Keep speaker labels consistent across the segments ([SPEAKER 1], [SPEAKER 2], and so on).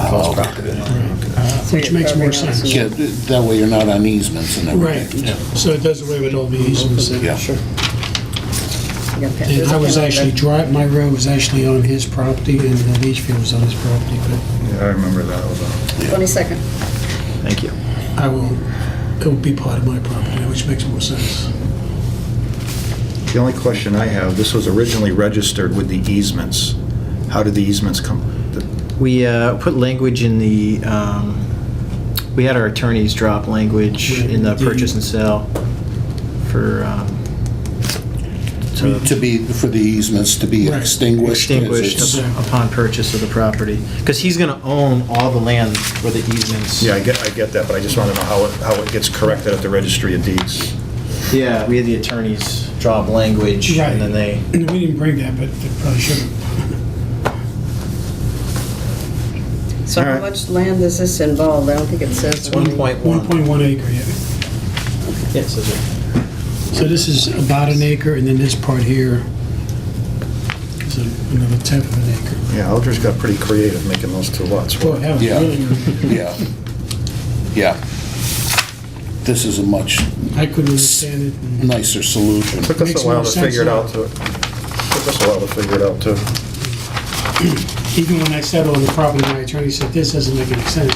[SPEAKER 1] called.
[SPEAKER 2] Which makes more sense.
[SPEAKER 1] Yeah, th- that way you're not on easements and
[SPEAKER 2] Right,
[SPEAKER 1] everything.
[SPEAKER 2] so it does away with all the easements.
[SPEAKER 1] Yeah.
[SPEAKER 2] And I was actually drive, my road was actually on his property and the leach field was on his property, but
[SPEAKER 3] Yeah, I remember that. was on.
[SPEAKER 4] 22nd.
[SPEAKER 3] Thank you.
[SPEAKER 2] I will, it will be part of my property, which makes more sense.
[SPEAKER 3] The only question I have, this was originally registered with the easements. How did the easements come? the-
[SPEAKER 5] We uh, put language in the, um, we had our attorneys drop language in the purchase and sale for um, so
[SPEAKER 1] Uh, To be, for the easements to be
[SPEAKER 2] Right.
[SPEAKER 1] extinguished. as
[SPEAKER 5] extinguished
[SPEAKER 1] it's-
[SPEAKER 5] upon purchase of the property. Because he's going to own all the land where the easements.
[SPEAKER 3] Yeah, I get, I get that, but I just want to know how it, how it gets corrected at the registry of deeds.
[SPEAKER 5] Yeah, we had the attorneys draw up language, and then they,
[SPEAKER 2] And we didn't bring that, but they probably should have.
[SPEAKER 4] So how much land is this involved? I don't think it says.
[SPEAKER 5] it's 1.1.
[SPEAKER 2] 1.1 acre, yeah.
[SPEAKER 5] Yeah, it says it.
[SPEAKER 2] So this is about an acre, and then this part here is another tenth of an acre.
[SPEAKER 3] Yeah, Aldridge got pretty creative making those two lots
[SPEAKER 2] Boy,
[SPEAKER 3] work.
[SPEAKER 2] that was
[SPEAKER 1] Yeah.
[SPEAKER 2] really,
[SPEAKER 1] Yeah. Yeah. This is a much
[SPEAKER 2] I couldn't understand it. and-
[SPEAKER 1] nicer solution.
[SPEAKER 3] Took us
[SPEAKER 2] Makes
[SPEAKER 3] a while
[SPEAKER 2] more
[SPEAKER 3] to
[SPEAKER 2] sense
[SPEAKER 3] figure it
[SPEAKER 2] now.
[SPEAKER 3] out, too. Took us a while to figure it out, too.
[SPEAKER 2] Even when I settled on the property, my attorney said, this doesn't make any sense.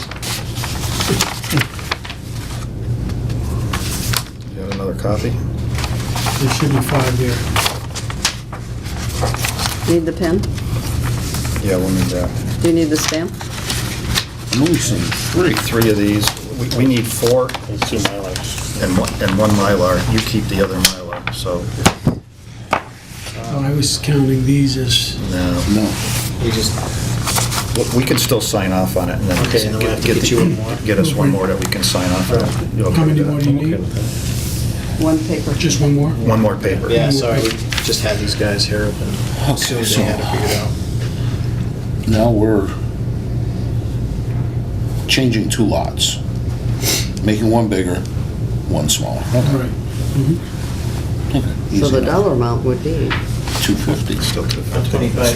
[SPEAKER 3] You have another copy?
[SPEAKER 2] There should be five there.
[SPEAKER 4] Need the pen?
[SPEAKER 3] Yeah, we'll need that.
[SPEAKER 4] Do you need the stamp?
[SPEAKER 1] I'm only seeing three.
[SPEAKER 3] three of these. We- We need four. And two Mylars. And one, and one Mylar. You keep the other Mylar, so,
[SPEAKER 2] Oh, I was counting these as,
[SPEAKER 3] no.
[SPEAKER 1] No.
[SPEAKER 5] We just,
[SPEAKER 3] But We can still sign off on it and then.
[SPEAKER 5] Okay, and then we'll have to get
[SPEAKER 3] the-
[SPEAKER 5] you one more.
[SPEAKER 3] Get us one more that we can sign off on. You okay
[SPEAKER 2] how many
[SPEAKER 3] with that?
[SPEAKER 2] more do you need?
[SPEAKER 4] One paper.
[SPEAKER 2] Just one more?
[SPEAKER 3] One more paper.
[SPEAKER 5] yeah, sorry, we just had these guys here,
[SPEAKER 2] Oh,
[SPEAKER 5] but as soon as they had it figured out.
[SPEAKER 1] Now we're changing two lots, making one bigger, one smaller.
[SPEAKER 2] All right.
[SPEAKER 4] So
[SPEAKER 1] Easy
[SPEAKER 4] the
[SPEAKER 1] enough.
[SPEAKER 4] dollar amount would be
[SPEAKER 1] 250.
[SPEAKER 3] Still two.
[SPEAKER 5] two, right?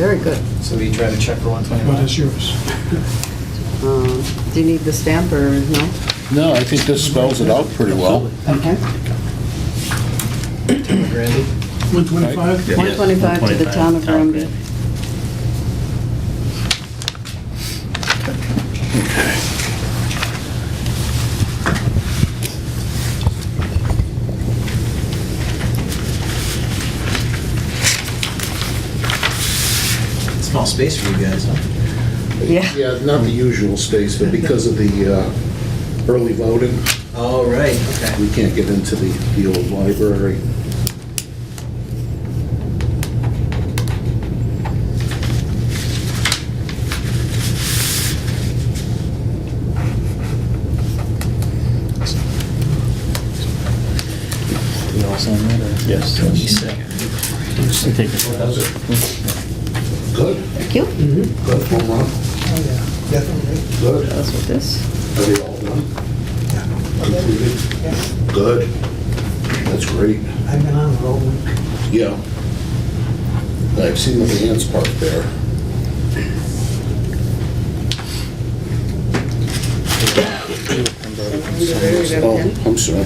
[SPEAKER 4] very good.
[SPEAKER 5] So we try to check for
[SPEAKER 2] What
[SPEAKER 5] 125.
[SPEAKER 2] is yours?
[SPEAKER 4] Um, Do you need the stamp or no?
[SPEAKER 1] No, I think this spells it out pretty well.
[SPEAKER 4] Okay.
[SPEAKER 5] Randy?
[SPEAKER 2] 125?
[SPEAKER 3] Yeah.
[SPEAKER 4] 125 to the town of Granby.
[SPEAKER 5] Small space for you guys, huh?
[SPEAKER 4] Yeah.
[SPEAKER 1] Yeah, not the usual space, but because of the uh, early voting,
[SPEAKER 5] Oh, right, okay.
[SPEAKER 1] we can't get into the the old library.
[SPEAKER 5] We all sign that, or? Yes.
[SPEAKER 1] Good,
[SPEAKER 4] Thank you.
[SPEAKER 1] good, home run.
[SPEAKER 6] Oh,
[SPEAKER 1] Good,
[SPEAKER 4] That's what this.
[SPEAKER 1] are they all done? Completed? Good, that's great,
[SPEAKER 6] I've been on the road.
[SPEAKER 1] yeah. I've seen the vans parked there. Oh, I'm sorry.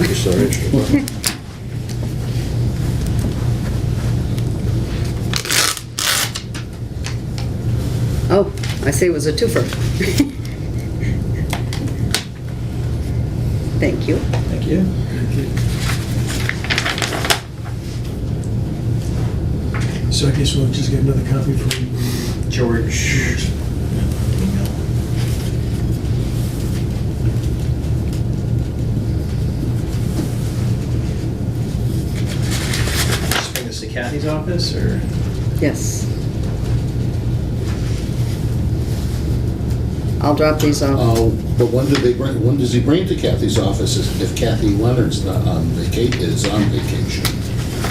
[SPEAKER 1] I'm sorry.
[SPEAKER 4] Oh, I see it was a twofer. Thank you.
[SPEAKER 5] Thank you.
[SPEAKER 2] So I guess we'll just get another copy for you.
[SPEAKER 5] George. Email. Just Bring this to Kathy's office, or?
[SPEAKER 4] Yes. I'll drop these off.
[SPEAKER 1] Oh, but when did they bring, when does he bring to Kathy's office if Kathy Leonard's not on vacation, is on vacation?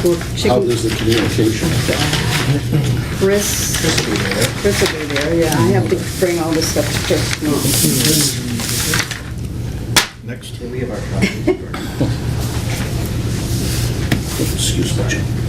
[SPEAKER 4] Well, she
[SPEAKER 1] How
[SPEAKER 4] can-
[SPEAKER 1] does the communication affect?
[SPEAKER 4] Chris,
[SPEAKER 5] This will be there.
[SPEAKER 4] Chris will be there, yeah. I have to bring all this stuff to Chris. No.
[SPEAKER 3] Next.
[SPEAKER 5] Yeah, we have our copy.
[SPEAKER 1] Excuse me. Jim.